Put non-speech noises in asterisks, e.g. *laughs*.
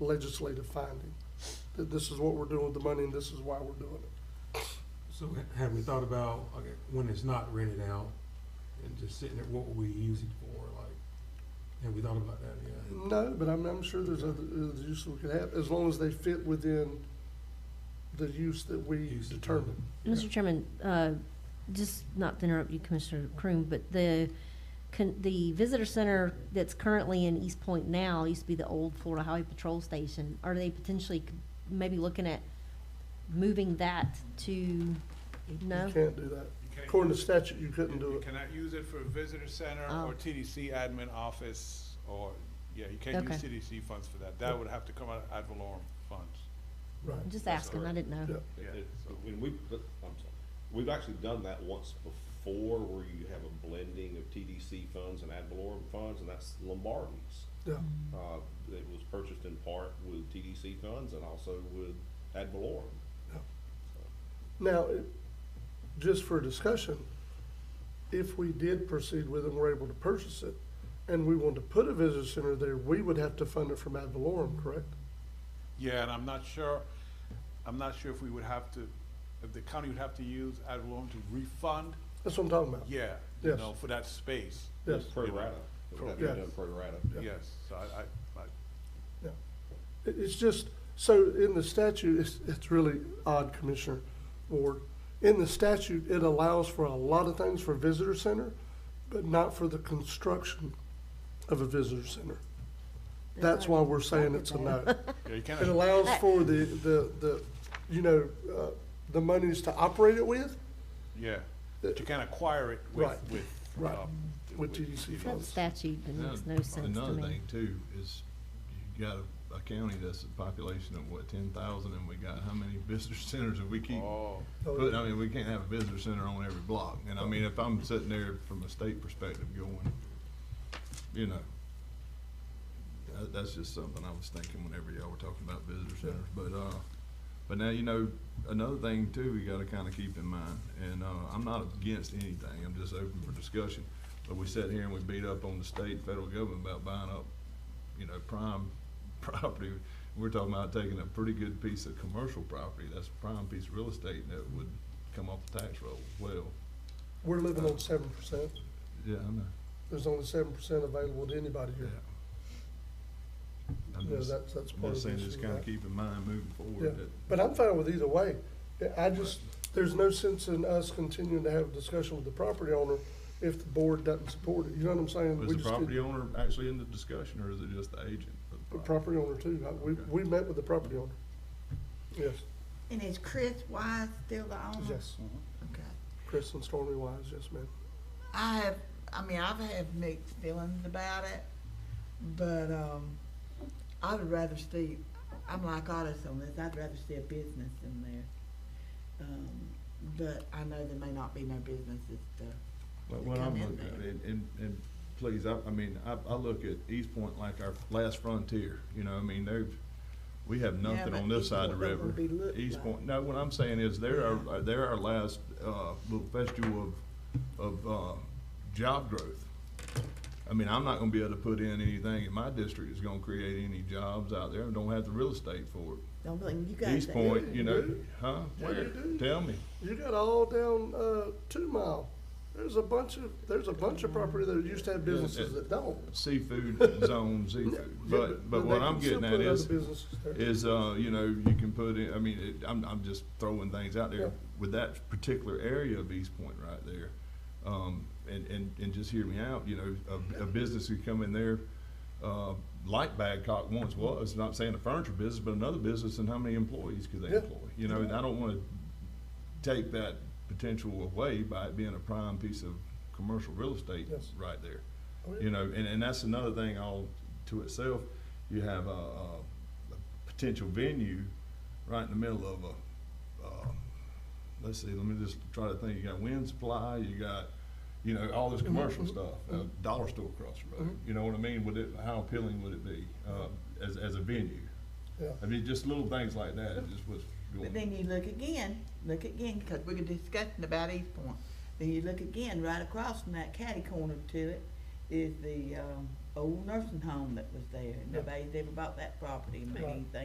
legislative finding, that this is what we're doing with the money and this is why we're doing it. So ha- have we thought about, okay, when it's not rented out and just sitting there, what would we use it for, like, have we thought about that yet? No, but I'm, I'm sure there's other, other uses we could have, as long as they fit within the use that we Use it. determine. Mr. Chairman, uh, just not to interrupt you, Commissioner Croom, but the, con- the visitor center that's currently in East Point now used to be the old Florida Highway Patrol Station. Are they potentially c- maybe looking at moving that to, no? You can't do that. You can't According to use- statute, you couldn't You do it. cannot use it for visitor center Oh. or TDC admin office or, yeah, you can't Okay. use TDC funds for that. That would have to come out of ad valorem funds. Right. I'm just asking, I didn't Yeah. know. Yeah, It- so- When we, but- I'm sorry, we've actually done that once before where you have a blending of TDC funds and ad valorem funds, and that's Lombardi's. Yeah, Uh, it was purchased in part with TDC funds and also with ad valorem. yeah. Now, it- just for discussion, if we did proceed with it and were able to purchase it, and we wanted to put a visitor center there, we would have to fund it from ad valorem, correct? Yeah, and I'm not sure, I'm not sure if we would have to, if the county would have to use ad valorem to refund, That's what I'm talking about. yeah, you Yes. know, for that space. Yes, Pro rata, it would have to be Yes. done pro rata. Yes, so I, I, I, yeah. It, it's just, so in the statute, it's, it's really odd, Commissioner Ward. In the statute, it allows for a lot of things for visitor center, but not for the construction of a visitor center. That's why we're saying it's a no. *laughs* yeah, you It cannot, allows for the, the, the, you know, uh, the monies to operate it with, yeah, Uh, but you can acquire it with, Right, with. right, um, with TDC That funds. statute, then makes no sense to Another me. thing too is you got a, a county that's a population of what, ten thousand and we got how many *laughs* visitor centers and we keep Oh, putting, I mean, we can't have a visitor center on every block. And I mean, if I'm sitting there from a state perspective going, you know, that, that's just something I was thinking whenever y'all were talking about visitor centers. But, uh, but now, you know, another thing too, we gotta kinda keep in mind, and, uh, I'm not against anything, I'm just open for discussion. But we sat here and we beat up on the state and federal government about buying up, you know, prime *laughs* property. We're talking about taking a pretty good piece of commercial property, that's a prime piece of real estate that would come off the tax roll well. We're living on seven percent. Yeah, I know, There's only seven percent available to anybody yeah. here. I'm Yeah, just, that's- that's I'm part just of saying, this, just you're kinda right. keep in mind moving Yeah, forward that. but I'm fine with either way. Yeah, I just, there's no sense in us continuing to have a discussion with the property owner if the board doesn't support it. You know what I'm saying? Was We the just property did- owner actually in the discussion, or is it just the agent? of The property owner too. I- We, Okay. we met with the property owner. Yes, And is Chris Wise still the owner? yes. Okay. Chris and Stormy Wise, yes, ma'am. I have, I mean, I've had mixed feelings about it, but, um, I would rather see, I'm like artists on this, I'd rather see a business in there. Um, but I know there may not be no businesses to, But to what come I'm in looking at, there. and, and, and please, I, I mean, I, I look at East Point like our last frontier, you know, I mean, they've, we have Yeah, nothing but on this East side of the Point don't river. wanna be looked East like. Point, no, what I'm saying is, they're our, they're our last, uh, little festival of, of, uh, job growth. I mean, I'm not gonna be able to put in anything in my district that's gonna create any jobs out there, and don't have the real estate for it. don't blame you guys. East Point, you know, do. huh? Yeah, Where? you do. Tell me. You got all down, uh, Two Mile. There's a bunch of, there's a bunch of property that used to have businesses that don't. seafood zone seafood. Yeah, But, but they what can I'm still getting put at other is, businesses there. is, uh, you know, you can put in, I mean, it, I'm, I'm just throwing things out Yeah. there. With that particular area of East Point right there, um, and, and, and just hear me out, you know, a, a business could come in there, uh, like Badcock once was, not saying a furniture business, but another business, and how many employees could they Yeah. employ? You know, and I don't wanna take that potential away by it being a prime piece of commercial real estate Yes. right there. Oh, yeah. You know, and, and that's another thing all to itself. You have a, a a potential venue right in the middle of a, uh, let's see, let me just try to think. You got wind supply, you got, you know, all this commercial stuff, a dollar store across the road. You know what I mean? Would it, how appealing would it be, uh, as, as a venue? Yeah. I mean, just little things like that, it just was But going, then you look again, look again, because we were discussing about East Point. Then you look again, right across from that catty corner to it is the, um, old nursing home that was there. Nobody's ever bought that property and made Right. anything